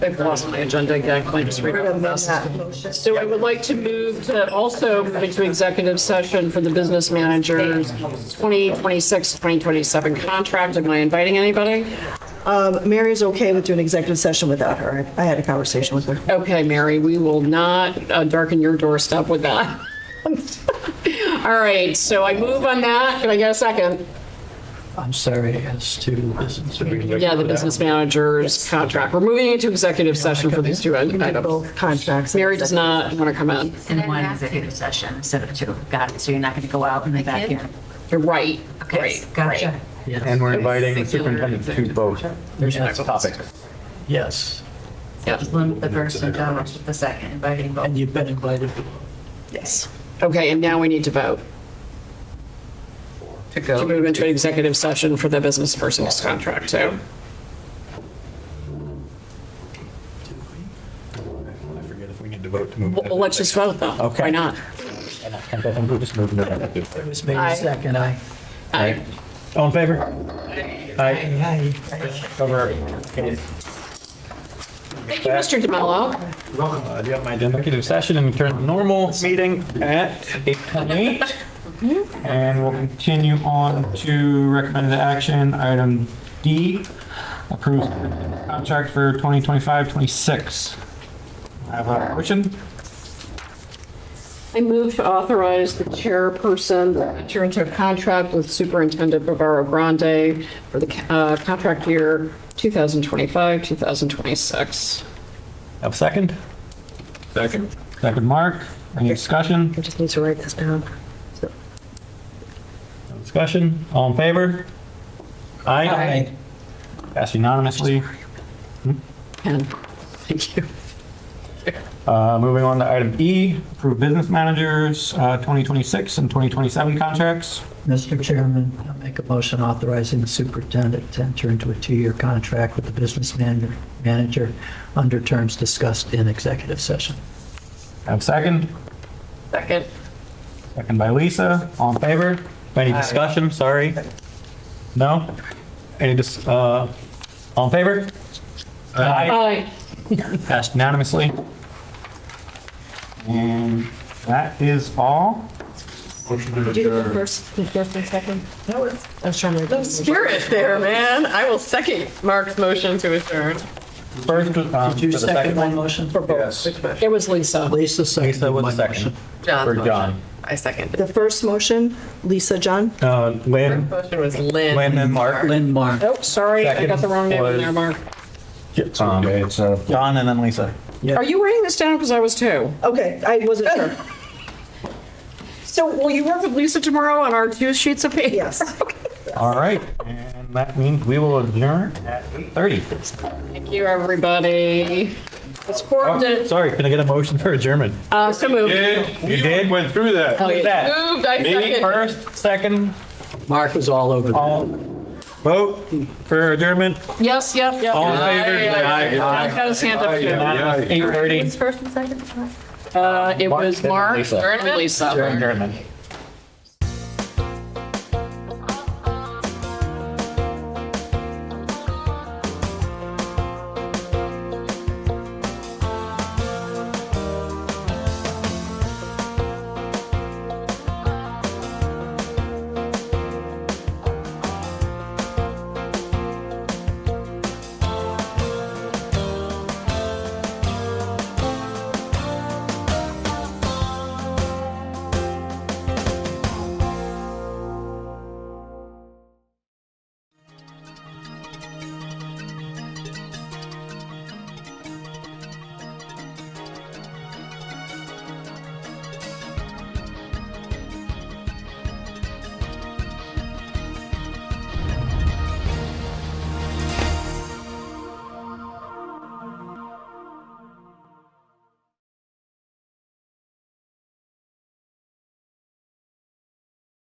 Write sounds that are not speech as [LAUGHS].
I've lost my agenda again, can I just read Rather off than this? that motion. So I would like to move to also move into executive session for the business manager's 2026, 2027 contract. Am I inviting anybody? um, Mary is okay with doing executive session without her. I I had a conversation with her. Okay, Mary, we will not uh, darken your doorstep with that. [LAUGHS] All right, so I move on that. Can I get a second? I'm sorry, as to business. Yeah, the business manager's contract. We're moving into executive session for these two items. Both contracts. Mary does not want to come in. in one executive session instead of two. Got it. So you're not going to go out in the back here. You're right, Okay, right. gotcha. And we're inviting the superintendent to vote. There's my topic. Yes, Just limit the first and don't limit the second, inviting both. and you've been invited. Yes. Okay, and now we need to vote. To go. To move into an executive session for the business person's contract, so. I forget if we need to vote to move. Well, let's just vote though. Okay. Why not? It All was made Aye. second, aye. I, in favor? Aye. Aye. Over. thank you, Mr. DeMello. Uh, Do you have my agenda? Executive session and turn the normal meeting at 8:28. And we'll continue on to recommended action, item D, approves contract for 2025-26. I have a motion. I move to authorize the chairperson to enter into a contract with Superintendent Bavaro Grande for the uh, contract year 2025, 2026. Have a second? Second. Second, Mark. Any discussion? I just need to write this down. No Discussion? All in favor? Aye. Passed unanimously. And, thank you. Uh, Moving on to item E, approve business managers, uh, 2026 and 2027 contracts. Mr. Chairman, I make a motion authorizing the superintendent to enter into a two-year contract with the business man- manager under terms discussed in executive session. Have a second? Second. Second by Lisa. All in favor? Any discussion? Sorry. No? Any dis, uh, all in favor? Aye. Aye. Passed unanimously. And that is all. Did you do the first, the first and second? That was. I was trying to. Spirit there, man. I will second Mark's motion to adjourn. First, um, Did you for the second my motion? Yes. It was Lisa. Lisa seconded Lisa my was the motion. second. For John. I second. The first motion, Lisa, John? Uh, Lynn, Motion was Lynn. Lynn and Mark. Lynn Mark. Oh, sorry, I got the wrong name in there, Second Mark. Um, John and then Lisa. Are you writing this down? Because I was too. Okay, I wasn't sure. So will you work with Lisa tomorrow on our two sheets of paper? Yes. All right, and that means we will adjourn at 8:30. Thank you, everybody. It's Oh, forwarded. Sorry, can I get a motion for adjournment? Uh, so moved. You did? Went through that. Look Oh. at that. Moved, I Me second. first, second, Mark was all over that. all, vote for adjournment, Yes, yep, yep. all in favor? I got his hand up too. Unanimous, 8:30. First and second? Uh, it was Mark, Mark, Lisa. Lisa. Adjournment.